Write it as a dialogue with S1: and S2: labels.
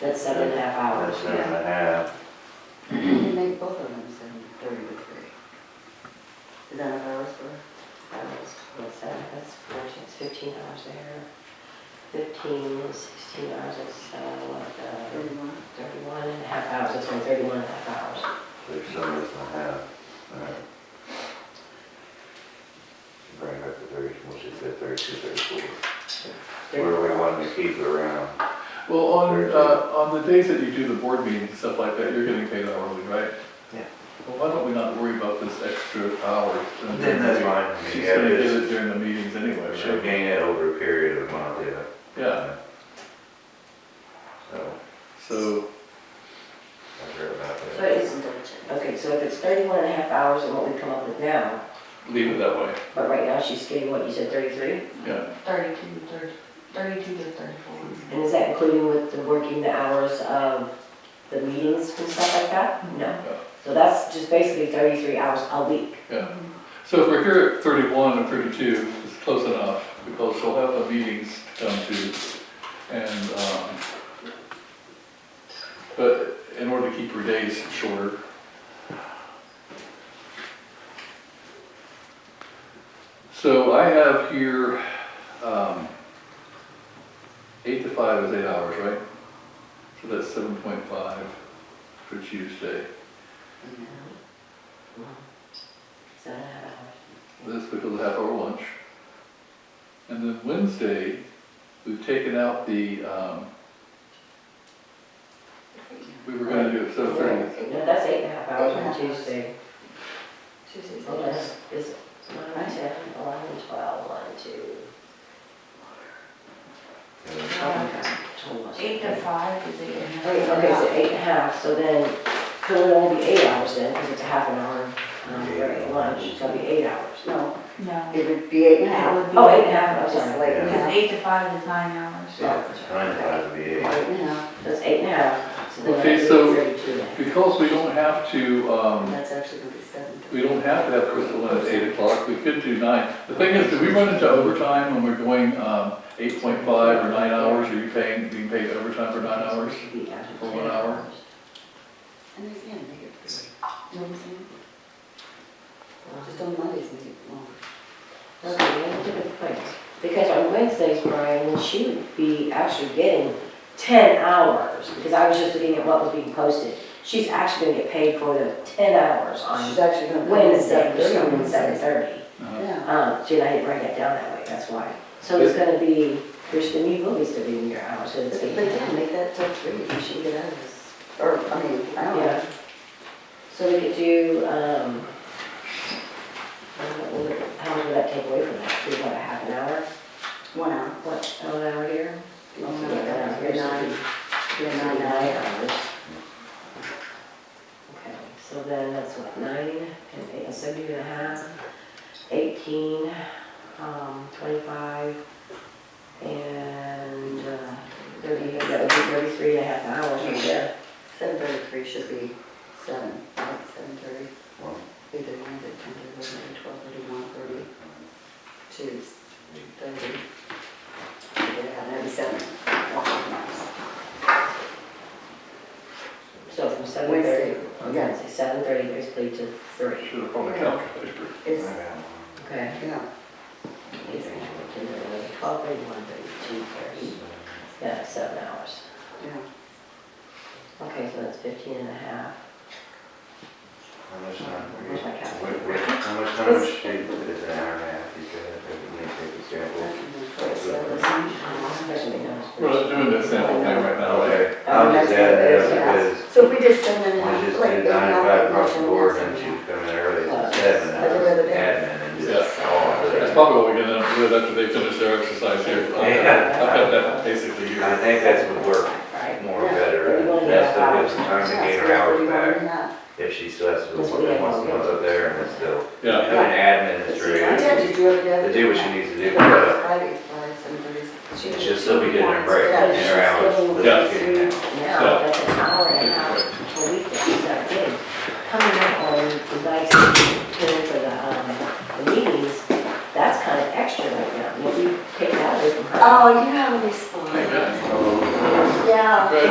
S1: That's seven and a half hours.
S2: That's seven and a half.
S3: You make both of them seven thirty to three. Is that enough hours for?
S1: That's, what's that, that's fourteen, it's fifteen hours there. Fifteen, sixteen hours, it's, uh, what, uh,
S3: Thirty-one.
S1: thirty-one and a half hours, it's only thirty-one and a half hours.
S2: There's seven and a half. All right. Bring it up to thirty, we'll see if that thirty-two, thirty-four. Where do we want to keep it around?
S4: Well, on,
S2: Very
S4: uh, on the days that you do the board meetings and stuff like that, you're getting paid hourly, right?
S2: Yeah.
S4: Well, why don't we not worry about this extra hour? during the
S2: Then that's
S4: meeting?
S2: fine. I mean,
S4: She's
S2: yeah,
S4: gonna
S2: this-
S4: give it during the meetings anyway,
S2: Should
S4: right?
S2: gain it over a period of a month, yeah.
S4: Yeah,
S2: So,
S4: so,
S2: I heard about
S1: But
S2: that.
S1: it's,
S3: Double check.
S1: okay, so if it's thirty-one and a half hours and what we come up with now,
S4: leave it that way,
S1: but right now she's getting, what, you said thirty-three?
S4: yeah.
S5: Thirty-two, thirty, thirty-two to thirty-four.
S1: And is that including with the working the hours of the meetings and stuff like that? No. So that's just basically thirty-three hours a week.
S4: So if we're here at thirty-one and thirty-two, it's close enough, because she'll have the meetings to come to, and, um, but in order to keep her days shorter, So I have here, um, eight to five is eight hours, right? So that's seven point five for Tuesday.
S1: Seven and a half hours.
S4: That's because I have our lunch. And then Wednesday, we've taken out the, um, we were gonna do it seven thirty.
S1: No, that's eight and a half hours on
S5: Eight and a half.
S1: Tuesday.
S5: Tuesdays.
S1: Well, that's, is nine, ten, eleven, twelve, one, two.
S2: Yeah.
S1: almost-
S5: Eight to five is eight and a half.
S1: Wait, okay, so eight and a half, so then, could it only be eight hours then, because it's a half an hour, um,
S2: Eight
S1: break at lunch, it's gonna be eight hours.
S3: No,
S5: No,
S3: it would be eight and a half.
S5: It would be
S1: Oh, eight and a half, I'm
S3: Just
S1: sorry.
S3: like,
S2: Yeah.
S5: because
S3: yeah,
S5: eight to five is nine hours.
S2: Yeah, it's nine times the eight.
S3: eight and a half.
S1: That's eight and a half, so then
S4: Okay,
S1: that'd be
S4: so-
S1: thirty-two then.
S4: Because we don't have to, um,
S3: That's actually gonna be seven.
S4: We don't have to have Crystal in at eight o'clock, we could do nine. The thing is, do we run into overtime when we're going, um, eight point five or nine hours? Are you paying, being paid overtime for nine hours? For one hour?
S3: And again, make it three. You know what I'm saying? Just on Mondays, make it longer.
S1: Okay, that's a good point. Because on Wednesdays, Brian, then she would be actually getting ten hours, because I was just looking at what was being posted. She's actually gonna get paid for the ten hours on
S3: She's actually gonna. come in
S1: Wednesday,
S3: seven
S1: she's
S3: thirty.
S1: gonna be seven thirty.
S3: Yeah.
S1: Um, see, and I didn't write that down that way, that's why. So it's gonna be, there's the new movies to be in your hours, so
S3: But
S1: it's
S3: but yeah,
S1: gonna be.
S3: make that till three, and she can get out of this. Or, I mean, I don't
S1: Yeah.
S3: know.
S1: So we could do, um, I don't know, how much would that take away from that? Do about a half an hour,
S3: One hour.
S1: what, an hour here?
S3: You're nine, you're nine, you're
S1: Nine
S3: nine hours.
S1: hours. Okay, so then that's what, nine and eight, so you and a half, eighteen, um, twenty-five, and uh, thirty, that would be thirty-three and a half hours right there.
S3: Seven thirty-three should be seven, right, seven thirty,
S2: Well,
S3: either one, but ten thirty, eleven, twelve thirty, one thirty, two, thirty. Yeah, that'd be seven. That's what matters.
S1: So from seven
S3: Wednesday,
S1: thirty,
S3: yeah,
S1: yeah, seven thirty basically to three,
S4: Should have probably calculated.
S3: it's,
S1: okay?
S3: yeah,
S1: Twelve thirty, one thirty, two thirty, yeah, seven hours.
S3: yeah.
S1: Okay, so that's fifteen and a half.
S2: How much time,
S1: Where's my calculator?
S2: wait, wait, how much time is she, is an hour and a half, you could, if we need to take a sample?
S1: Um,
S4: We're not doing that sample thing right now, right?
S2: Okay, I'll just add that up because
S3: So if we just send them.
S2: We just
S3: like,
S2: did
S3: they
S2: nine
S3: have
S2: to five
S3: that
S2: across the
S3: motion,
S2: board
S3: that's
S2: and
S3: it.
S2: she was coming in early at seven, I was admin and just all of
S4: That's
S2: it.
S4: probably what we're gonna end up with after they finish their exercise here.
S2: Yeah.
S4: I've got that basically
S2: I
S4: here.
S2: think that's would work
S1: Right.
S2: more better, and that's the best time to gain her hours back, if she still has to go work and wants to go up there and it's still,
S4: Yeah,
S2: doing admin is
S3: I tell
S2: really,
S3: you, do it together.
S2: to do what she needs to do,
S3: Yeah,
S2: but
S3: Friday, Friday, seven thirty.
S2: she'll still be getting her break in her hours, but she's getting
S1: um,
S3: Oh,